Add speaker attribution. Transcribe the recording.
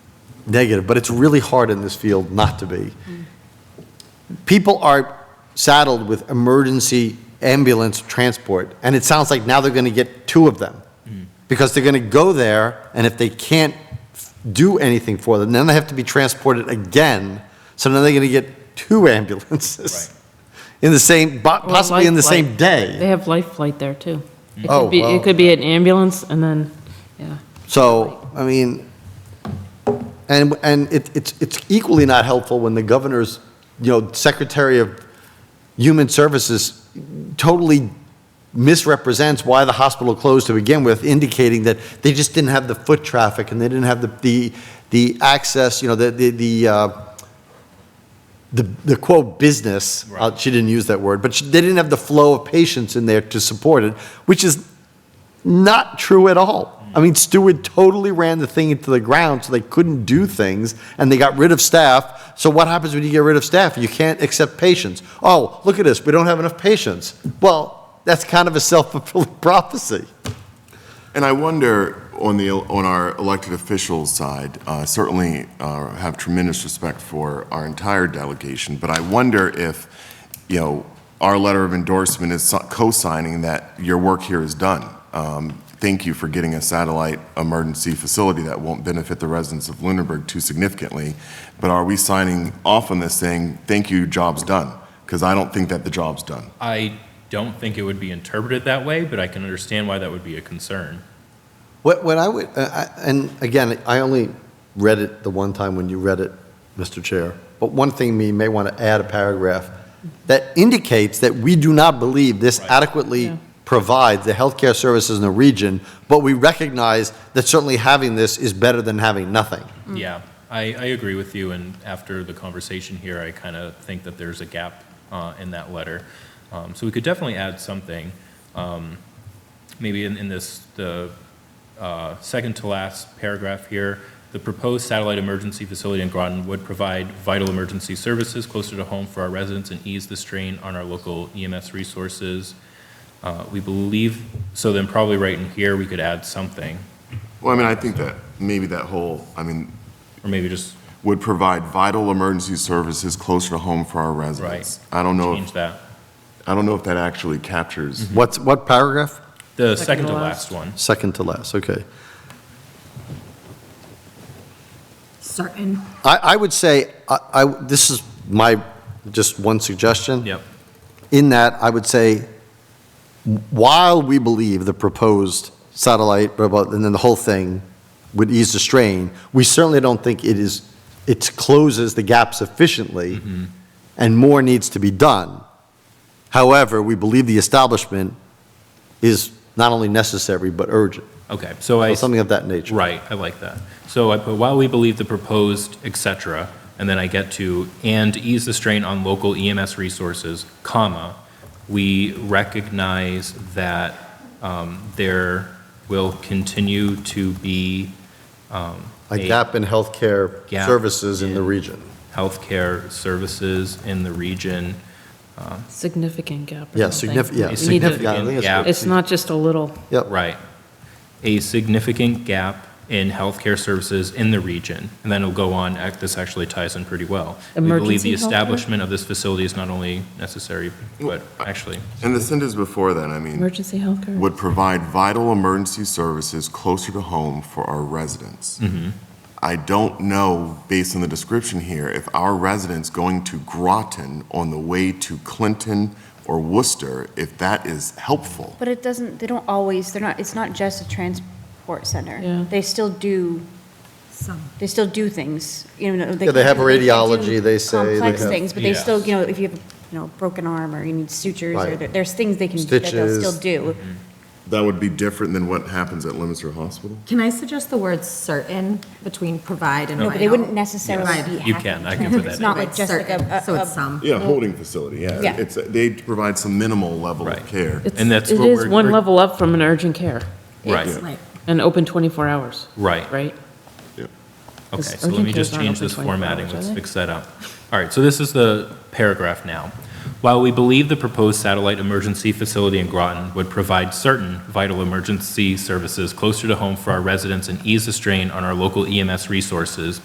Speaker 1: negative, but it's really hard in this field not to be. People are saddled with emergency ambulance transport, and it sounds like now they're going to get two of them because they're going to go there, and if they can't do anything for them, then they have to be transported again. So now they're going to get two ambulances in the same, bo-
Speaker 2: Or
Speaker 1: possibly in the
Speaker 2: life flight.
Speaker 1: same day.
Speaker 2: They have life flight there, too. It
Speaker 1: Oh,
Speaker 2: could be,
Speaker 1: wow.
Speaker 2: it could be an ambulance and then, yeah.
Speaker 1: So, I mean, and, and it, it's, it's equally not helpful when the governor's, you know, Secretary of Human Services totally misrepresents why the hospital closed to begin with, indicating that they just didn't have the foot traffic and they didn't have the, the, the access, you know, the, the, the, uh, the, the quote business, uh,
Speaker 3: Right.
Speaker 1: she didn't use that word, but she, they didn't have the flow of patients in there to support it, which is not true at all. I mean, Stewart totally ran the thing into the ground, so they couldn't do things, and they got rid of staff. So what happens when you get rid of staff? You can't accept patients. Oh, look at this, we don't have enough patients. Well, that's kind of a self-fulfilling prophecy.
Speaker 4: And I wonder, on the, on our elected officials side, uh, certainly uh, have tremendous respect for our entire delegation, but I wonder if, you know, our letter of endorsement is so- co-signing that your work here is done. Um, Thank you for getting a satellite emergency facility that won't benefit the residents of Lunenburg too significantly, but are we signing off on this saying, thank you, job's done? Because I don't think that the job's done.
Speaker 3: I don't think it would be interpreted that way, but I can understand why that would be a concern.
Speaker 1: What, what I would, uh, I- and again, I only read it the one time when you read it, Mr. Chair, but one thing we may want to add a paragraph that indicates that we do not believe this
Speaker 3: Right.
Speaker 1: adequately
Speaker 2: Yeah.
Speaker 1: provides the healthcare services in the region, but we recognize that certainly having this is better than having nothing.
Speaker 3: Yeah, I, I agree with you, and after the conversation here, I kind of think that there's a gap uh, in that letter. Um, So we could definitely add something, um, maybe in, in this, the uh, second to last paragraph here, the proposed satellite emergency facility in Groton would provide vital emergency services closer to home for our residents and ease the strain on our local EMS resources. Uh, We believe, so then probably right in here, we could add something,
Speaker 4: Well, I mean, I think that maybe that whole, I mean,
Speaker 3: or maybe just
Speaker 4: would provide vital emergency services closer to home for our residents. I don't know,
Speaker 3: change
Speaker 4: if-
Speaker 3: that.
Speaker 4: I don't know if that actually captures.
Speaker 1: What's, what paragraph?
Speaker 3: The second to last one.
Speaker 1: Second to last, okay.
Speaker 5: certain.
Speaker 1: I, I would say, I, I, this is my, just one suggestion.
Speaker 3: Yep.
Speaker 1: In that, I would say, while we believe the proposed satellite, blah, blah, and then the whole thing would ease the strain, we certainly don't think it is, it closes the gap sufficiently, and more needs to be done. However, we believe the establishment is not only necessary, but urgent,
Speaker 3: Okay, so I,
Speaker 1: or something of that nature.
Speaker 3: right, I like that. So I put, while we believe the proposed, et cetera, and then I get to, and ease the strain on local EMS resources, comma, we recognize that um, there will continue to be um,
Speaker 1: A gap in healthcare
Speaker 3: Gap
Speaker 1: services in the
Speaker 3: in-
Speaker 1: region.
Speaker 3: Healthcare services in the region.
Speaker 2: Significant gap. or
Speaker 1: Yeah,
Speaker 2: something.
Speaker 1: significant, yeah,
Speaker 3: A
Speaker 2: We need to-
Speaker 1: significant. I think it's
Speaker 3: gap.
Speaker 1: good.
Speaker 2: It's not just a little,
Speaker 1: Yep,
Speaker 3: Right. A significant gap in healthcare services in the region. And then it'll go on, act- this actually ties in pretty well. We believe
Speaker 2: Emergency
Speaker 3: the
Speaker 2: healthcare?
Speaker 3: establishment of this facility is not only necessary, but actually,
Speaker 4: And the sentence before that, I mean,
Speaker 2: emergency healthcare.
Speaker 4: would provide vital emergency services closer to home for our residents.
Speaker 3: Mm-hmm.
Speaker 4: I don't know, based on the description here, if our residents going to Groton on the way to Clinton or Worcester, if that is helpful.
Speaker 6: But it doesn't, they don't always, they're not, it's not just a transport
Speaker 2: Yeah.
Speaker 6: center. They still do,
Speaker 5: Some.
Speaker 6: they still do things, you know.
Speaker 1: Yeah, they have
Speaker 6: do-
Speaker 1: radiology,
Speaker 6: do
Speaker 1: they say they
Speaker 6: Complex
Speaker 1: have-
Speaker 6: things, but they
Speaker 3: Yes.
Speaker 6: still, you know, if you have, you know, broken arm or you need sutures or
Speaker 1: Right.
Speaker 6: there- there's things they can, that they'll
Speaker 1: Stitches.
Speaker 6: still do.
Speaker 4: That would be different than what happens at Lemonster Hospital?
Speaker 5: Can I suggest the word certain between provide and
Speaker 6: No,
Speaker 5: vital?
Speaker 6: but they wouldn't necessarily
Speaker 5: Yes.
Speaker 6: be
Speaker 3: You
Speaker 6: happy.
Speaker 3: can, I can put that
Speaker 6: It's
Speaker 3: in.
Speaker 6: not
Speaker 5: Right,
Speaker 6: like just like a-
Speaker 5: certain, So
Speaker 6: a-
Speaker 5: it's
Speaker 6: a-
Speaker 5: some.
Speaker 4: Yeah, holding facility, yeah.
Speaker 6: Yeah.
Speaker 4: It's, they provide some minimal level
Speaker 3: Right.
Speaker 4: of care.
Speaker 2: It's-
Speaker 3: and that's
Speaker 2: It
Speaker 3: what
Speaker 2: is
Speaker 3: we're-
Speaker 2: one
Speaker 3: we're-
Speaker 2: level up from an urgent care
Speaker 3: right,
Speaker 5: Right.
Speaker 2: and open 24 hours,
Speaker 3: right.
Speaker 2: right?
Speaker 3: Okay,
Speaker 2: 'Cause
Speaker 3: so let me
Speaker 2: urgent cares
Speaker 3: just
Speaker 2: aren't
Speaker 3: change
Speaker 2: open
Speaker 3: this
Speaker 2: 24
Speaker 3: formatting,
Speaker 2: hours, are
Speaker 3: let's
Speaker 2: they?
Speaker 3: fix that up. All right, so this is the paragraph now. While we believe the proposed satellite emergency facility in Groton would provide certain vital emergency services closer to home for our residents and ease the strain on our local EMS E resources,